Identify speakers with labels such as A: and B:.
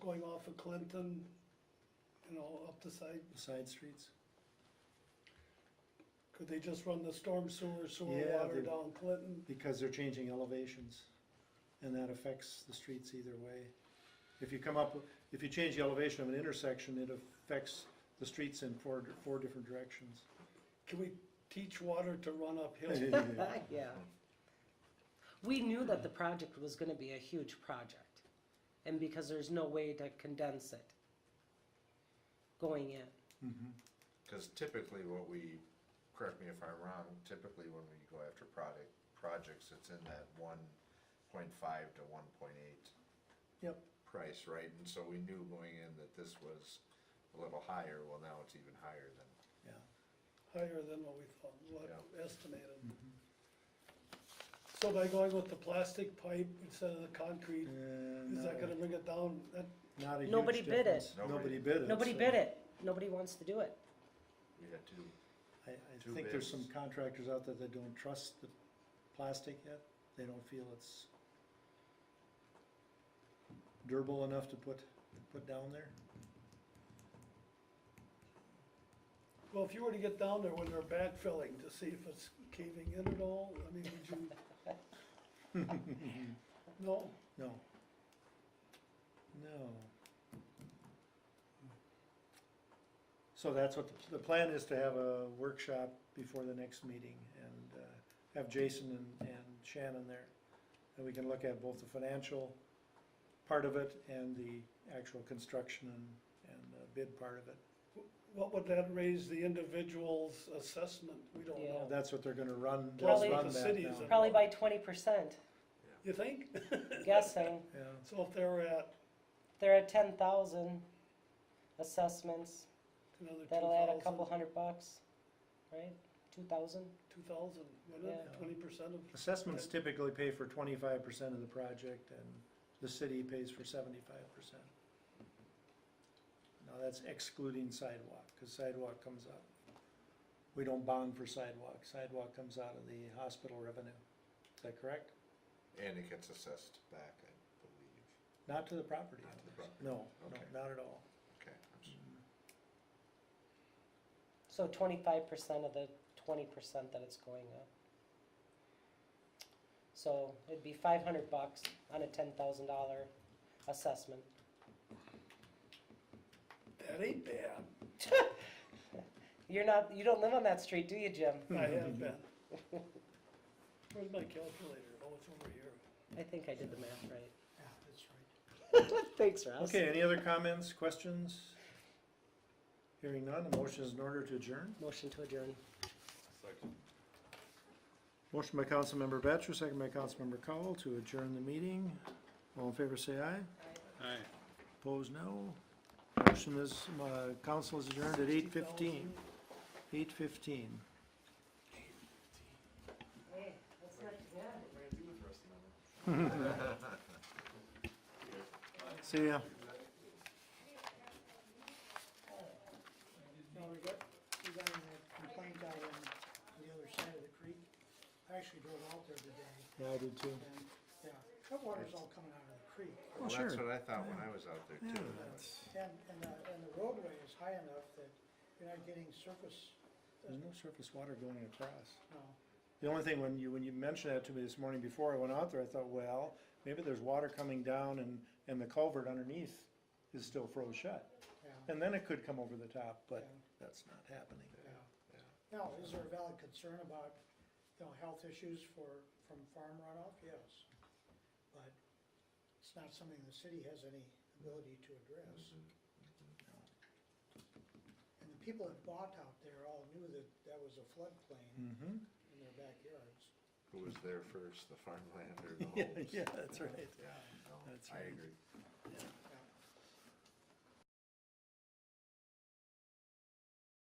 A: going off of Clinton, you know, up the side,
B: The side streets?
A: could they just run the storm sewer, sewer
B: Yeah,
A: water
B: they-
A: down Clinton?
B: Because they're changing elevations, and that affects the streets either way. If you come up, if you change the elevation of an intersection, it affects the streets in four, four different directions.
A: Can we teach water to run uphill?
B: Yeah,
C: Yeah. We knew that the project was gonna be a huge project, and because there's no way to condense it going in.
B: mhm.
D: Because typically what we, correct me if I'm wrong, typically when we go after product, projects, it's in that one point five to one point eight
A: Yep,
D: price, right? And so we knew going in that this was a little higher, well, now it's even higher than,
B: Yeah.
A: higher than what we thought, what
D: Yeah.
A: estimated.
B: Mm-hmm.
A: So by going with the plastic pipe instead of the concrete,
B: And
A: is that
B: not a-
A: gonna bring it down? That,
B: Not a huge
C: Nobody bid it.
B: difference. Nobody
D: Nobody-
B: bid it.
C: Nobody
B: so
C: bid it, nobody wants to do it.
D: we had two.
B: I, I
D: Two
B: think there's some
D: bids.
B: contractors out there that don't trust the plastic yet, they don't feel it's durable enough to put, put down there.
A: well, if you were to get down there when they're backfilling to see if it's caving in at all, I mean, would you? No,
B: No. No. So that's what, the, the plan is to have a workshop before the next meeting and, uh, have Jason and, and Shannon there. And we can look at both the financial part of it and the actual construction and, and uh, bid part of it.
A: what would that raise the individual's assessment? We don't
C: Yeah.
A: know.
B: That's what they're gonna run,
A: Well,
B: just
C: the
B: run that
A: cities
B: now.
A: are-
C: Probably by twenty percent,
A: You think?
C: guessing.
B: Yeah,
A: So if they were at
C: There are ten thousand assessments,
A: another two
C: that'll add a couple
A: thousand,
C: hundred bucks, right? Two thousand?
A: two thousand, wouldn't it?
B: Yeah.
A: Twenty percent of,
B: assessments typically pay for twenty-five percent of the project and the city pays for seventy-five percent. Now, that's excluding sidewalk, cause sidewalk comes out, we don't bond for sidewalk, sidewalk comes out of the hospital revenue, is that correct?
D: And it gets assessed back, I believe,
B: Not to the property,
D: not to the
B: owners.
D: property.
B: no, no,
D: Okay.
B: not at all.
D: Okay, I'm
B: Mm.
D: s-
C: So twenty-five percent of the twenty percent that it's going up. So it'd be five hundred bucks on a ten thousand dollar assessment.
A: that ain't bad.
C: You're not, you don't live on that street, do you, Jim?
A: I have been. Where's my calculator? Oh, it's over here.
C: I think I did the math right.
A: Yeah, that's right.
C: Thanks, Russ.
B: Okay, any other comments, questions? Hearing none, a motion is in order to adjourn?
C: Motion to adjourn.
B: Motion by Councilmember Batchor, second by Councilmember Cowell to adjourn the meeting. All in favor, say aye.
E: Aye.
B: Opposed, no. Motion is, uh, council is adjourned at eight fifteen. Eight fifteen.
C: Hey, that's not too bad.
B: See ya.
F: No, we got, we got a complaint out on the other side of the creek. I actually drove out there today
B: Yeah, I did too.
F: and, yeah, that water's all coming out of the creek.
D: Well, that's
B: sure.
D: what I thought when I was out there
B: Yeah,
D: too.
B: that's,
F: And, and the, and the roadway is high enough that you're not getting surface,
B: there's no surface water going across.
F: no.
B: The only thing, when you, when you mentioned that to me this morning before I went out there, I thought, well, maybe there's water coming down and, and the culvert underneath is still froze shut.
F: yeah,
B: And then it could come over the top, but
F: Yeah.
B: that's not happening.
F: yeah. Now, is there a valid concern about, you know, health issues for, from farm runoff? Yes. But it's not something the city has any ability to address. Mm-hmm. And the people that bought out there all knew that that was a floodplain
B: Mm-hmm.
F: in their backyards.
D: Who was there first, the farmland or the
B: Yeah,
D: homes?
B: yeah, that's right.
D: Yeah, no,
B: That's
D: I
B: right.
D: agree.
F: Yeah.